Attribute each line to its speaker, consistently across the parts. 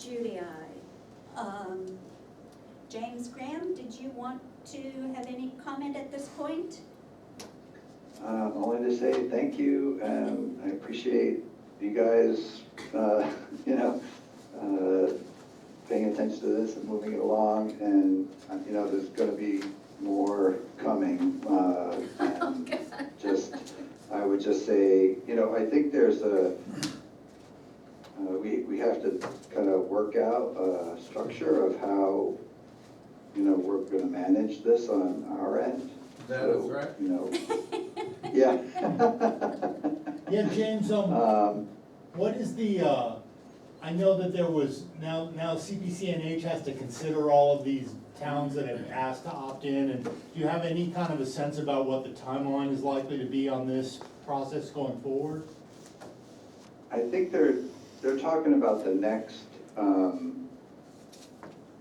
Speaker 1: Judy, I. Um, James Graham, did you want to have any comment at this point?
Speaker 2: Um, Only to say thank you, and I appreciate you guys, uh, you know, uh, paying attention to this and moving it along, and, uh, you know, there's gonna be more coming. uh, and Just, I would just say, you know, I think there's a, uh, we, we have to kind of work out a structure of how, you know, we're gonna manage this on our end.
Speaker 3: That is
Speaker 2: So,
Speaker 3: right.
Speaker 2: You know, yeah.
Speaker 4: Yeah, James, um,
Speaker 2: Um,
Speaker 4: what is the, uh, I know that there was, now, now CPCNH has to consider all of these towns that have asked to opt in, and do you have any kind of a sense about what the timeline is likely to be on this process going forward?
Speaker 2: I think they're, they're talking about the next, um,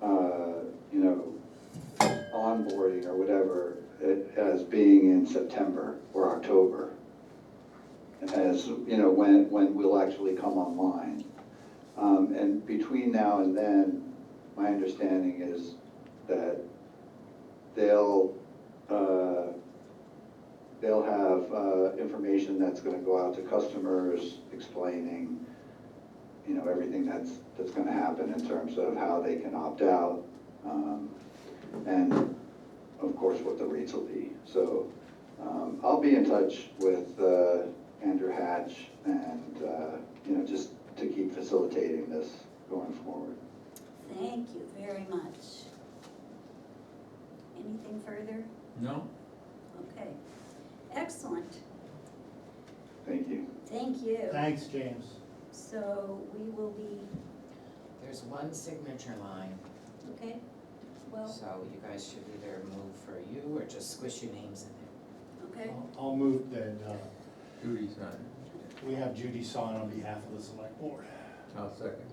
Speaker 2: uh, you know, onboarding or whatever, it- as being in September or October. As, you know, when, when we'll actually come online. Um, and between now and then, my understanding is that they'll, uh, they'll have uh, information that's gonna go out to customers explaining, you know, everything that's, that's gonna happen in terms of how they can opt out. um, And of course, what the rates will be. So um, I'll be in touch with uh, Andrew Hatch and, uh, you know, just to keep facilitating this going forward.
Speaker 1: Thank you very much. Anything further?
Speaker 3: No?
Speaker 1: Okay, excellent,
Speaker 2: Thank you.
Speaker 1: thank you.
Speaker 4: Thanks, James.
Speaker 1: So we will be,
Speaker 5: There's one signature line,
Speaker 1: okay, well,
Speaker 5: so you guys should either move for you or just squish your names in there.
Speaker 1: okay,
Speaker 4: I'll- I'll move that, uh,
Speaker 3: Judy's not.
Speaker 4: we have Judy sign on behalf of the select board.
Speaker 3: I'll second.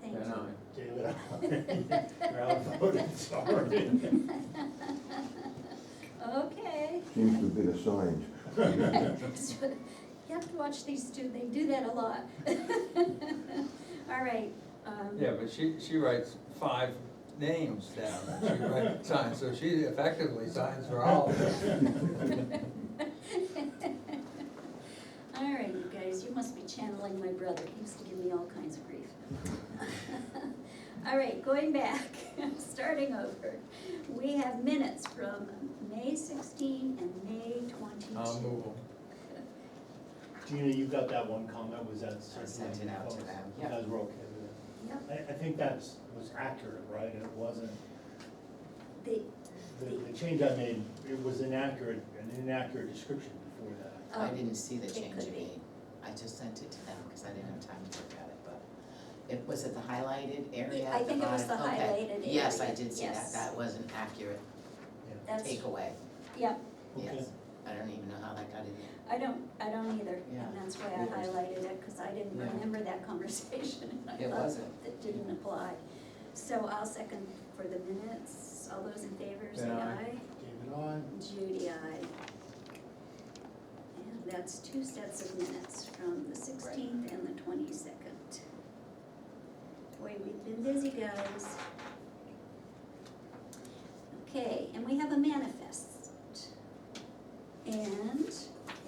Speaker 1: thank
Speaker 3: And
Speaker 1: you.
Speaker 3: I.
Speaker 4: David, I- you're outvoted, sorry.
Speaker 1: Okay.
Speaker 6: Seems to be assigned.
Speaker 1: So, You have to watch these two, they do that a lot. All right, um.
Speaker 3: Yeah, but she, she writes five names down, and she writes, signs, so she effectively signs for all of them.
Speaker 1: All right, you guys, you must be channeling my brother, he used to give me all kinds of grief. All right, going back, starting over, we have minutes from May sixteen and May twenty-two.
Speaker 3: I'll move on.
Speaker 4: Gina, you got that one comment, was that
Speaker 5: I
Speaker 4: certainly?
Speaker 5: sent it out to them,
Speaker 4: You
Speaker 5: yeah.
Speaker 4: guys were okay with it?
Speaker 1: Yep,
Speaker 4: I, I think that's, was accurate, right, it wasn't,
Speaker 1: the,
Speaker 4: the, the change I made, it was inaccurate, an inaccurate description before that.
Speaker 5: I
Speaker 1: um,
Speaker 5: didn't see the
Speaker 1: it
Speaker 5: change
Speaker 1: could
Speaker 5: you
Speaker 1: be.
Speaker 5: made. I just sent it to them because I didn't have time to look at it, but it, was it the highlighted area
Speaker 1: I
Speaker 5: at the
Speaker 1: think it was
Speaker 5: bottom?
Speaker 1: the
Speaker 5: Okay.
Speaker 1: highlighted
Speaker 5: Yes, I
Speaker 1: area,
Speaker 5: did see
Speaker 1: yes.
Speaker 5: that. That was an accurate
Speaker 1: that's,
Speaker 5: takeaway,
Speaker 1: yep,
Speaker 4: Okay.
Speaker 5: yes. I don't even know how that got in there.
Speaker 1: I don't, I don't either,
Speaker 5: Yeah.
Speaker 1: and that's why I
Speaker 5: Yeah.
Speaker 1: highlighted it, because I didn't
Speaker 5: Yeah.
Speaker 1: remember that conversation. and I
Speaker 5: It
Speaker 1: thought
Speaker 5: wasn't.
Speaker 1: That didn't apply. So I'll second for the minutes, all those in favor, say
Speaker 3: Then
Speaker 1: aye.
Speaker 3: aye.
Speaker 4: David, I,
Speaker 1: Judy, aye. And that's two sets of minutes from the sixteenth and the twenty-second. Boy, we've been busy, guys. Okay, and we have a manifest. And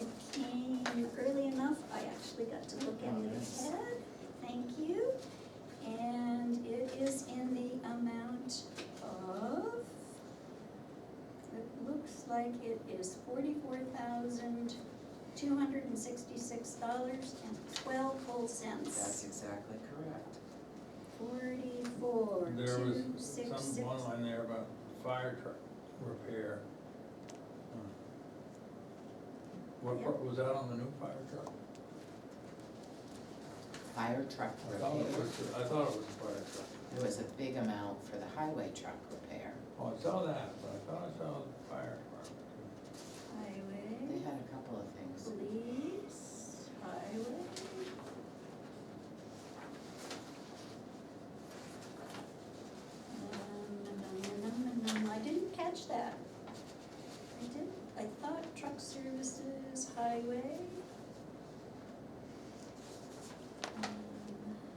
Speaker 1: it came early enough, I actually got to look at
Speaker 5: Oh,
Speaker 1: it
Speaker 5: nice.
Speaker 1: ahead, thank you. And it is in the amount of, it looks like it is forty-four thousand, two hundred and sixty-six dollars and twelve whole
Speaker 5: That's
Speaker 1: cents.
Speaker 5: exactly correct.
Speaker 1: Forty-four,
Speaker 3: There was
Speaker 1: two, six, six.
Speaker 3: some, one line there about fire truck repair. Hmm. What, what was that on the new fire truck?
Speaker 5: Fire truck
Speaker 3: I thought it
Speaker 5: repair.
Speaker 3: was, I thought it was a fire truck.
Speaker 5: There was a big amount for the highway truck repair.
Speaker 3: Oh, I saw that, but I thought I saw the fire department.
Speaker 5: They
Speaker 1: Highway,
Speaker 5: had a couple of things.
Speaker 1: police.